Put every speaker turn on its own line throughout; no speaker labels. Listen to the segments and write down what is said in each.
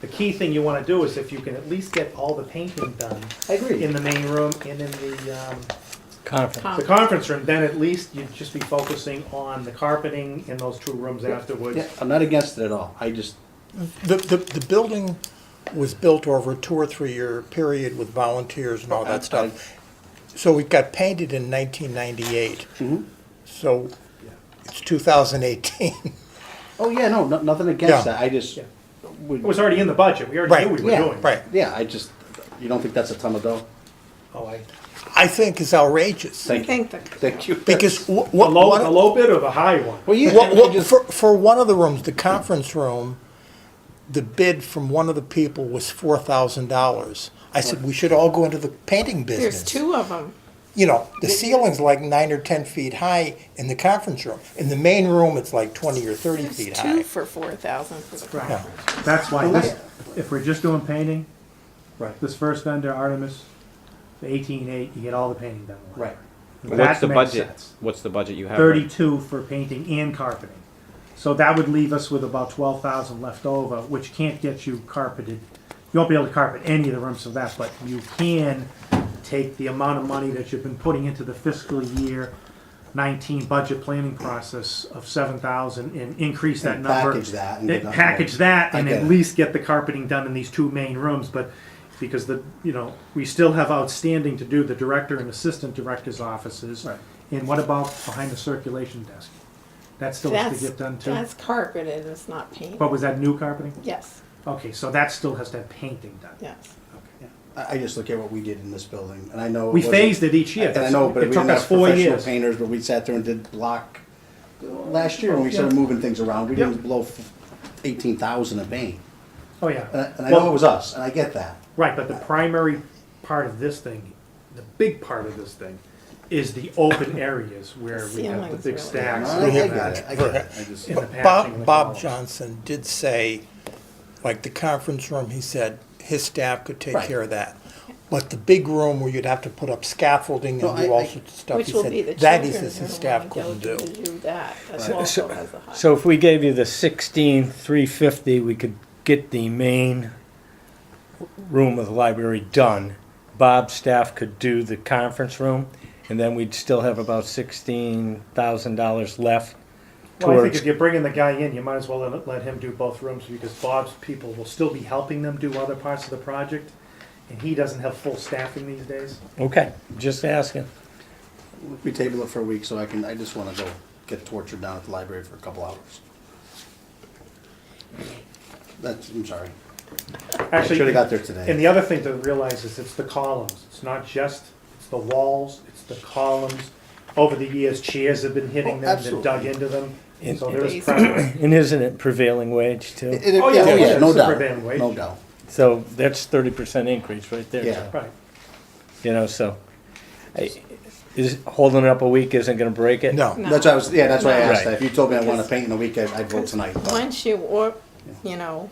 The key thing you want to do is if you can at least get all the painting done
I agree.
in the main room and in the, um,
Conference.
the conference room, then at least you'd just be focusing on the carpeting in those two rooms afterwards.
Yeah, I'm not against it at all. I just,
The, the, the building was built over a two or three-year period with volunteers and all that stuff. So it got painted in nineteen ninety-eight.
Mm-hmm.
So it's two thousand eighteen.
oh yeah, no, no- nothing against
Yeah.
that. I just,
Yeah.
would-
It was already in the budget, we already knew
Right,
we were
yeah,
doing. it.
Right.
yeah, I just, you don't think that's a ton of dough?
Oh, I,
I think is outrageous.
Thank you.
think that,
Thank you.
Because wha-
a
wha-
low,
one-
a low bid or the high one?
Well, yeah,
wha-
I
wha-
just-
for, for one of the rooms, the conference room, the bid from one of the people was four thousand dollars. I said, we should all go into the painting business.
there's two of them.
you know, the ceiling's like nine or ten feet high in the conference room. In the main room, it's like twenty or thirty
There's
feet
two
high.
for four thousand for the
Yeah.
conference.
That's why,
Well,
this, if we're just doing painting,
Right.
this first vendor, Artemis, the eighteen eight, you get all the painting done.
Right.
What's the
That makes
budget?
sense.
What's the budget you have? right
Thirty-two for painting and carpeting. So that would leave us with about twelve thousand left over, which can't get you carpeted. You won't be able to carpet any of the rooms of that, but you can take the amount of money that you've been putting into the fiscal year nineteen budget planning process of seven thousand and increase that
And
number.
package that and
They
get that-
Package that
I
and
get
at
it.
least get the carpeting done in these two main rooms, but because the, you know, we still have outstanding to do the director and assistant director's offices.
Right.
And what about behind the circulation desk? That still has to
That's,
get done too?
that's carpeted, it's not painted.
What was that, new carpeting?
Yes,
Okay, so that still has to have painting done.
yes.
Okay.
Yeah. I, I just look at what we did in this building, and I know. it
We
wasn't-
phased it each year.
And I know, but
It
we
took
didn't
us
have
four
professional
years.
painters, but we sat there and did block last year when we started
Yeah.
moving things around. We
Yep.
didn't blow eighteen thousand a paint.
Oh,
And I,
yeah.
Uh, and I
Well,
know it was us, and I get that.
Right, but the primary part of this thing, the big part of this thing, is the open areas where we have the
Ceilings,
big
really.
I,
stacks.
I
and all
get it,
that.
I get it. I just-
In the patching
Bob,
and
Bob
columns.
Johnson did say, like the conference room, he said his staff could take
Right.
care of that. But the big room where you'd have to put up scaffolding
No,
and do
I-
all
I-
sorts of stuff,
Which
he
will be the
said, that he
children
says his
who are
staff
going
couldn't
to
do.
do that. That's also has a high.
So if we gave you the sixteen, three fifty, we could get the main room of the library done. Bob's staff could do the conference room, and then we'd still have about sixteen thousand dollars left
Well, I think if
towards.
you're bringing the guy in, you might as well let, let him do both rooms because Bob's people will still be helping them do other parts of the project. And he doesn't have full staffing these days.
Okay, just asking.
We table it for a week, so I can, I just wanna go get tortured down at the library for a couple hours. That's, I'm sorry. I
Actually,
should've got there
and
today.
the other thing to realize is it's the columns. It's not just, it's the walls, it's the columns. Over the years, chairs have been hitting
Oh,
them, they've dug
absolutely.
into them.
And-
So there is
and-
pressure.
And isn't it prevailing wage too?
It- it-
Oh, yeah, yeah,
No
it's a
doubt,
prevailing wage.
no doubt.
So that's thirty percent increase right there.
Yeah.
Right.
You know, so, I- is, holding it up a week isn't gonna break it?
No,
No.
That's why I was, yeah, that's why I asked
Right.
that. If you told me I wanna paint in a week, I'd I'd vote tonight. but-
Once you, or, you know,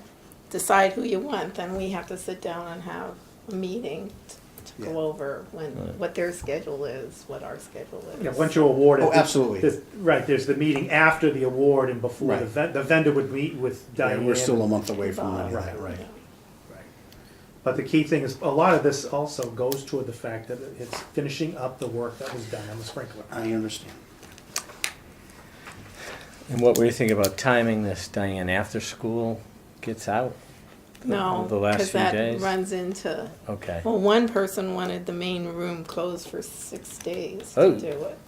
decide who you want, then we have to sit down and have a meeting t- to
Yeah.
go over when, what their schedule is, what our schedule is.
Yeah, once you award it.
Oh, absolutely.
there's- Right, there's the meeting after the award and before the
Right.
ven- the vendor would meet with
Yeah,
Diane.
we're still a month away from
Bob,
any of that,
you
right?
know.
Right. But the key thing is, a lot of this also goes toward the fact that it's finishing up the work that was done on the sprinkler.
I understand.
And what were you thinking about timing this, Diane, after school gets out?
No,
The last
because
few
that
days?
runs into,
Okay,
well, one person wanted the main room closed for six days
Oh.
to do it.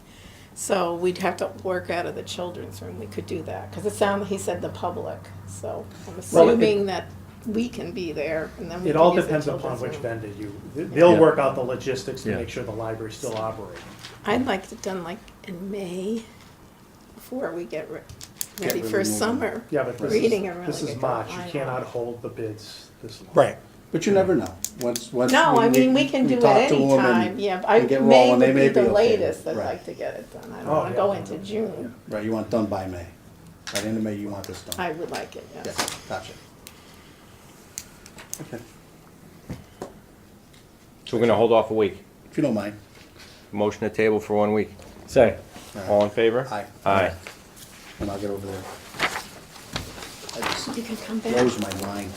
So we'd have to work out of the children's room. We could do that, because it sounded, he said the public, so I'm
Well, it-
assuming that we can be there and then we
It
can
all
use the
depends upon
children's
which
room.
vendor you, they'll
Yeah.
work out the logistics to
Yeah.
make sure the library's still operating.
I'd like it done like in May, before we get re-
Get
ready
rid
for
of the
summer.
Yeah, but this
Reading and
is, this
really
is
good
March, you
line.
cannot hold the bids this long.
right.
But you never know. Once, once.
No, I mean, we can do it
talk to them and-
anytime, yeah, I,
and get
May
rolling, they
would
may
be
be
the
okay.
latest, I'd
Right.
like to get it done, I don't
Oh,
wanna
yeah.
go into June,
Right, you want it done by May. By the end of May, you want this done.
I would like it,
Yeah,
yes.
gotcha. Okay,
So we're gonna hold off a week.
if you don't mind.
Motion to table for one week.
sorry.
All in favor?
Aye.
Aye.
And I'll get over there. I just
You can come back.
froze my mind.